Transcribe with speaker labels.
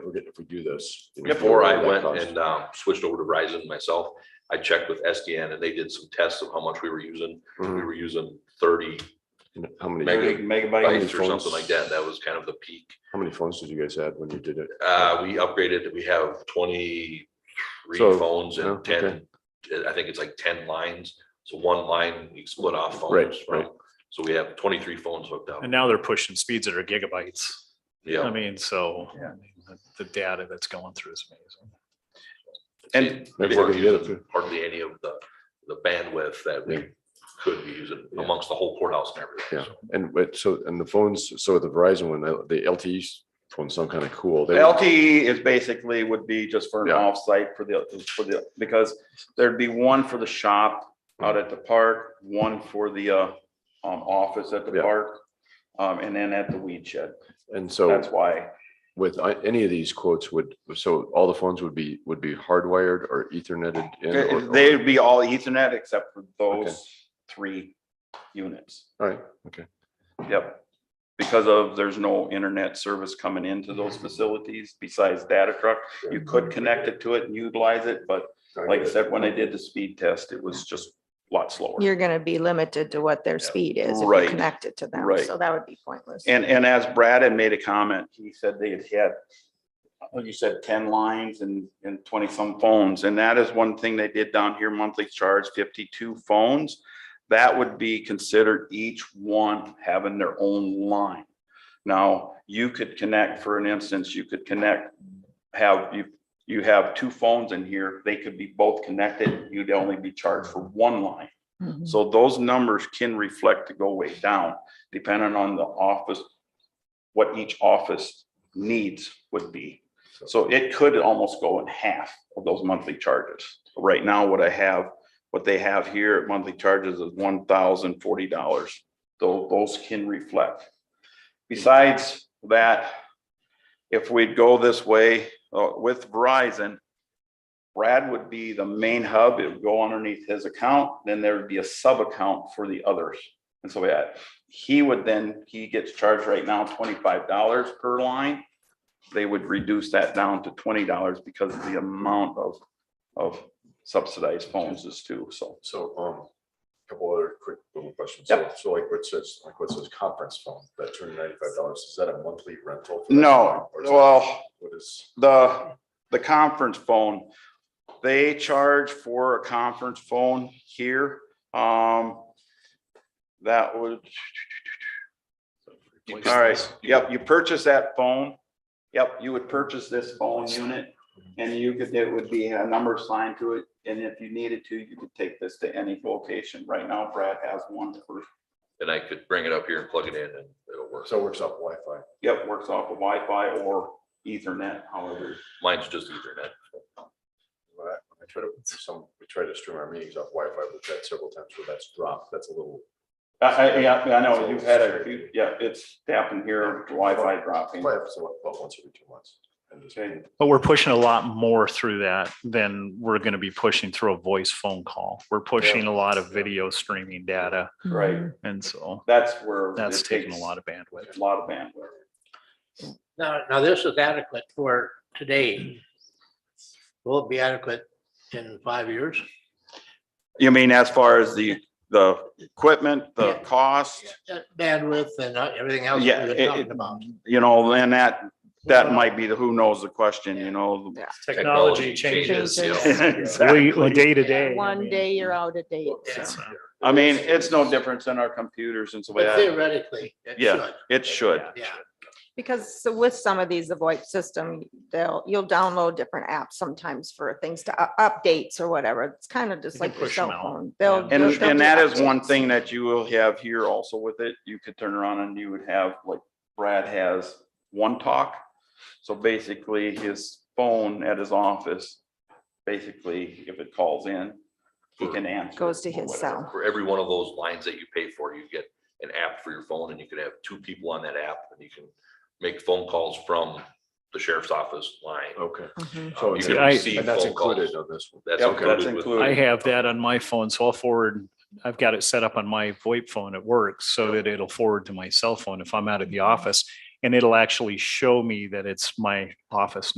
Speaker 1: forget if we do this.
Speaker 2: Before I went and um, switched over to Verizon myself, I checked with SDN and they did some tests of how much we were using. We
Speaker 1: Mhm.
Speaker 2: were using thirty
Speaker 1: How many,
Speaker 2: Mega-
Speaker 1: many
Speaker 2: bytes
Speaker 1: phones?
Speaker 2: or something like that. That was kind of the peak.
Speaker 1: how many phones did you guys have when you did it?
Speaker 2: Uh, we upgraded, we have twenty-three
Speaker 1: So,
Speaker 2: phones
Speaker 1: yeah,
Speaker 2: and ten, I think it's like ten lines. So one line, we split off
Speaker 1: Right,
Speaker 2: phones from,
Speaker 1: right.
Speaker 2: so we have twenty-three phones hooked up.
Speaker 3: And um, now they're pushing speeds that are gigabytes. I
Speaker 2: Yeah.
Speaker 3: mean, so I mean, the- the data that's going through is amazing.
Speaker 2: And
Speaker 1: Maybe
Speaker 2: we
Speaker 1: we'll
Speaker 2: weren't
Speaker 1: get it
Speaker 2: using
Speaker 1: too.
Speaker 2: hardly any of the, the bandwidth that
Speaker 1: Yeah.
Speaker 2: we could be using
Speaker 1: Yeah.
Speaker 2: amongst the whole courthouse and everything.
Speaker 1: Yeah. And wait, so, and the phones, so the Verizon one, the- the LTE phone sound kind of cool. They-
Speaker 4: LTE E is basically would be just for an
Speaker 1: Yeah.
Speaker 4: offsite for the, for the, because there'd be one for the shop out at the park, one for the uh, um, office at
Speaker 1: Yeah.
Speaker 4: the park, um, and then at the weed shed.
Speaker 1: And so
Speaker 4: That's why.
Speaker 1: with I- any of these quotes would, so all the phones would be, would be hardwired or etherneted in? or- or-
Speaker 4: They'd be all ethernet except for
Speaker 1: Okay.
Speaker 4: those three units.
Speaker 1: All right, okay.
Speaker 4: Yep. Because of, there's no internet service coming into those facilities besides data truck. You could connect it to it and utilize it, but like I said, when I did the speed test, it was just a lot slower.
Speaker 5: You're gonna be limited to what their speed is if
Speaker 4: Right.
Speaker 5: you connect it to them,
Speaker 4: Right.
Speaker 5: so that would be pointless.
Speaker 4: And, and as Brad had made a comment, he said they had had, what you said, ten lines and, and twenty some phones. And that is one thing they did down here, monthly charge fifty-two phones. That would be considered each one having their own line. Now, you could connect, for an instance, you could connect, have, you, you have two phones in here, they could be both connected, you'd only be charged for one line.
Speaker 5: Mhm.
Speaker 4: So those numbers can reflect to go way down, depending on the office, what each office needs would be. So it could almost go in half of those monthly charges. Right now, what I have, what they have here at monthly charges is one thousand forty dollars. Those, can reflect. Besides that, if we'd go this way uh, with Verizon, Brad would be the main hub. It would go underneath his account, then there would be a sub account for the others. And so yeah, he would then, he gets charged right now twenty-five dollars per line. They would reduce that down to twenty dollars because of the amount of, of subsidized phones is too, so.
Speaker 1: So, um, couple other quick little questions.
Speaker 4: Yep.
Speaker 1: So like what says, like what says conference phone, that two hundred ninety-five dollars, is that a monthly rental?
Speaker 4: No, well,
Speaker 1: What is?
Speaker 4: the, the conference phone, they charge for a conference phone here. Um, that would, all right, yep, you purchase that phone. Yep, you would purchase this phone unit and you could, it would be a number assigned to it. And if you needed to, you could take this to any location. Right now Brad has one for,
Speaker 2: And I could bring it up here and plug it in and it'll work.
Speaker 1: So it works off Wi-Fi.
Speaker 4: yep, works off of Wi-Fi or ethernet, however.
Speaker 2: Mine's just ethernet.
Speaker 1: When I when I try to, some, we try to stream our meetings off Wi-Fi, we've had several times where that's dropped, that's a little.
Speaker 4: I, I, yeah, I know, you've had a, few- yeah, it's happened here, Wi-Fi dropping.
Speaker 1: Probably happens about about once every two months. And just-
Speaker 4: Okay.
Speaker 3: But we're pushing a lot more through that than we're going to be pushing through a voice phone call. We're pushing a lot of video streaming data.
Speaker 4: Right,
Speaker 5: Mm-hmm.
Speaker 3: And so
Speaker 4: that's where.
Speaker 3: that's
Speaker 4: it
Speaker 3: taking a
Speaker 4: takes
Speaker 3: lot of bandwidth.
Speaker 4: A lot of bandwidth.
Speaker 6: Now, now this is adequate for today. Will it be adequate in five years?
Speaker 4: You mean as far as the, the equipment, the
Speaker 6: Yeah.
Speaker 4: cost,
Speaker 6: That Bandwidth and uh, everything else we
Speaker 4: Yeah,
Speaker 6: were
Speaker 4: it-
Speaker 6: talking
Speaker 4: it-
Speaker 6: about.
Speaker 4: you know, then that, that might be the who knows the question, you
Speaker 6: Yeah.
Speaker 4: know?
Speaker 3: Technology changes.
Speaker 5: Changes.
Speaker 3: We,
Speaker 4: Exactly.
Speaker 3: day to day. I
Speaker 5: One
Speaker 3: mean,
Speaker 5: day you're out of date.
Speaker 3: it's, uh,
Speaker 4: I mean, it's no different than our computers and so
Speaker 6: But
Speaker 4: that.
Speaker 6: theoretically, it
Speaker 4: Yeah,
Speaker 6: should,
Speaker 4: it should.
Speaker 6: yeah.
Speaker 5: Because so with some of these, the VoIP system, they'll, you'll download different apps sometimes for things to u- updates or whatever. It's kind of just
Speaker 3: You can
Speaker 5: like your
Speaker 3: push 'em
Speaker 5: cell
Speaker 3: out.
Speaker 5: phone.
Speaker 3: Yeah.
Speaker 5: They'll.
Speaker 4: And,
Speaker 5: they'll- they'll
Speaker 4: and
Speaker 5: do
Speaker 4: that is one
Speaker 5: updates.
Speaker 4: thing that you will have here also with it. You could turn around and you would have, like Brad has, one talk. So basically, his phone at his office, basically, if it calls in, he
Speaker 6: Hmm.
Speaker 4: can answer.
Speaker 5: Goes to
Speaker 4: or
Speaker 5: his
Speaker 4: whatever.
Speaker 5: cell.
Speaker 2: For every one of those lines that you pay for, you get an app for your phone and you could have two people on that app and you can make phone calls from the sheriff's office line.
Speaker 4: Oh,
Speaker 1: Okay.
Speaker 5: Mhm.
Speaker 2: Uh, You can
Speaker 3: I-
Speaker 2: receive
Speaker 1: And that's
Speaker 2: phone calls.
Speaker 1: included on this one.
Speaker 2: That's
Speaker 4: Yep, that's
Speaker 2: included with
Speaker 4: included.
Speaker 3: I have that on my phone, so I'll forward, I've got it set up on my VoIP phone at work so that it'll forward to my cell phone if I'm out of the office. And it'll actually show me that it's my office